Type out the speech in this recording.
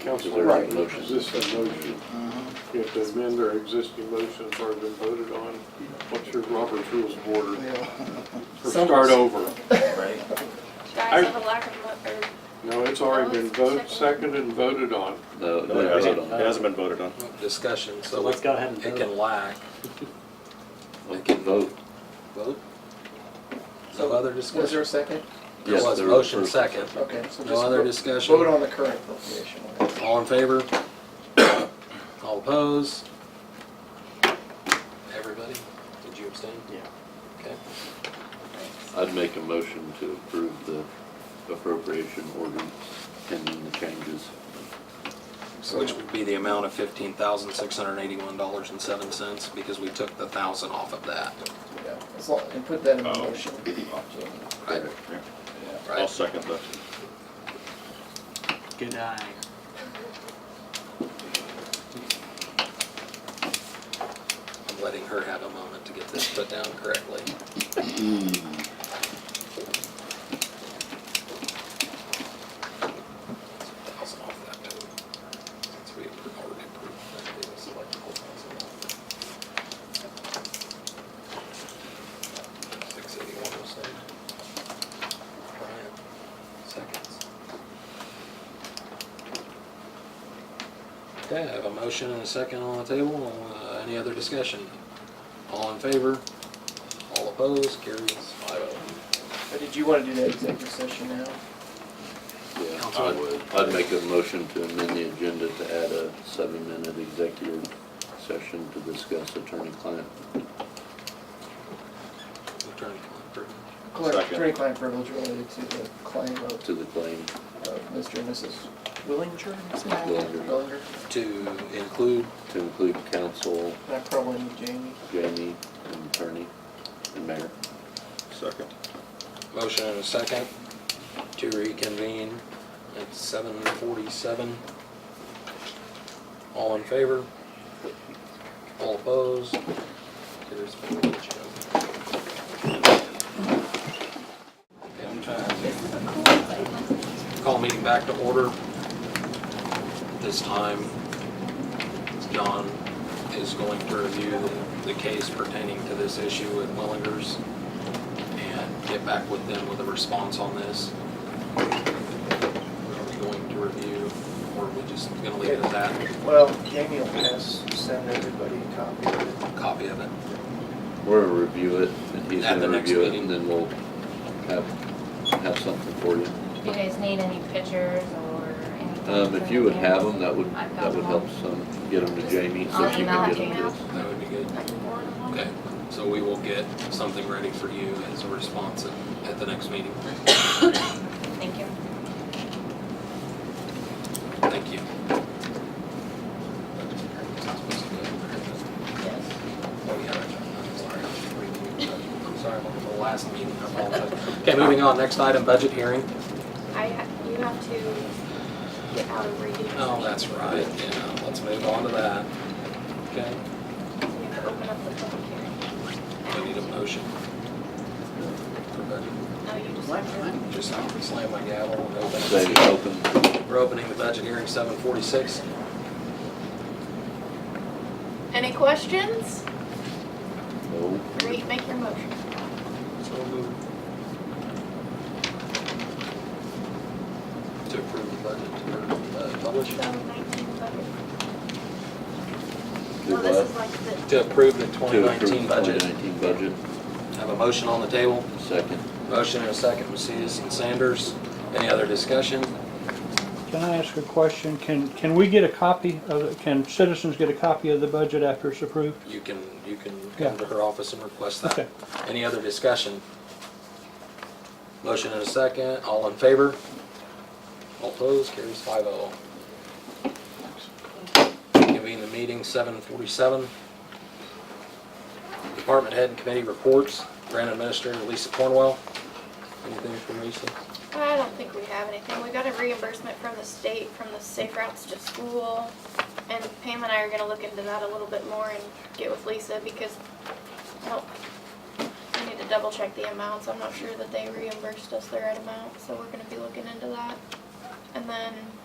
Council Is there a already motion? motions this a motion. You have to amend their existing motion that's already been voted on. What's your Robert's Rules of Order? Or So- start over. Right. You guys have a lack of, mo- or No, it's already been voted, seconded and voted on. No, it No, it didn't vote hasn't, on it it. hasn't been voted on. Discussion, So so let's go ahead and it can vote. lack. We can vote. Vote? No other Was there discussion? a second? There Yes, was a there was motion first. second. Okay, so No other just discussion? vote on the current appropriation. All in favor? All opposed? Everybody? Did you abstain? Yeah. Okay. I'd make a motion to approve the appropriation ordinance pending the changes. Which would be the amount of fifteen thousand, six hundred and eighty-one dollars and seven cents, because we took the thousand off of that. Yeah, As long, and put that in the Oh. motion. Right. Yeah. I'll Right? second that. Good eye. I'm letting her have a moment to get this put down correctly. Thousand off that too. Since we already approved that, it was like a whole thousand off. Six eighty-one oh seven. Bryant, seconds. Okay, I have a motion and a second on the table. Uh, Any other discussion? All in favor? All opposed? Carries five oh. But did you want to do that executive session now? Yeah, Council. I'd, I'd make a motion to amend the agenda to add a seven-minute executive session to discuss attorney-client. Attorney Clifford. Collect Second. attorney-client privilege related to the claim of, to the claim. of Mr. and Mrs. Willinger? Willinger. Willinger, To include, to include counsel, and I probably need Jamie. Jamie, and attorney, and mayor. Second. motion and a second to reconvene at seven forty-seven. All in favor? All opposed? Carries four oh. Call meeting back to order. This time, John is going to review the- the case pertaining to this issue with Willingers and get back with them with a response on this. Are we going to review, or are we just gonna leave it at that, Well, Jamie will pass, send everybody a copy of it. copy of it? We're gonna review it, and he's At the gonna next review it, meeting. and then we'll have, have something for you. Do you guys need any pictures or anything? Um, if you would have them, that would, I've got that would them all. help some, get them to Jamie, so I'll she email can get it to them to you. us. That would be good. I can forward them on. Okay, so we will get something ready for you as a response at, at the next meeting. Thank you. Thank you. Yes. Oh, yeah, I'm sorry. I'm sorry about the last meeting. I apologize. Okay, moving on, next item, budget hearing. I, ha- you have to get out of reading. Oh, that's right, yeah, let's move on to that. Okay, You have to open up the public hearing. we need a motion. For budget. No, you just have to. Just I'm gonna slam my gavel and open it. Say, open, We're opening the budget hearing seven forty-six. Any questions? no, Re, make your motion. To approve the budget, or uh, publish? So nineteen budget. do Well, this is what? like the, To approve the twenty To approve twenty nineteen budget. nineteen budget, Have a motion on the table. second. Motion and a second, Macias and Sanders. Any other discussion? Can I ask a question? Can, can we get a copy of, can citizens get a copy of the budget after it's approved? You can, you can Yeah. come to her office and request that. Okay. Any other discussion? Motion and a second, all in favor? All opposed, carries five oh. Convene the meeting, seven forty-seven. Department head and committee reports, Grant Administrator Lisa Cornwell. Anything from Lisa? I don't think we have anything. We got a reimbursement from the state, from the Safe Routes to School. And Pam and I are gonna look into that a little bit more and get with Lisa because, well, we need to double check the amounts. I'm not sure that they reimbursed us the right amount, so we're gonna be looking into that. And then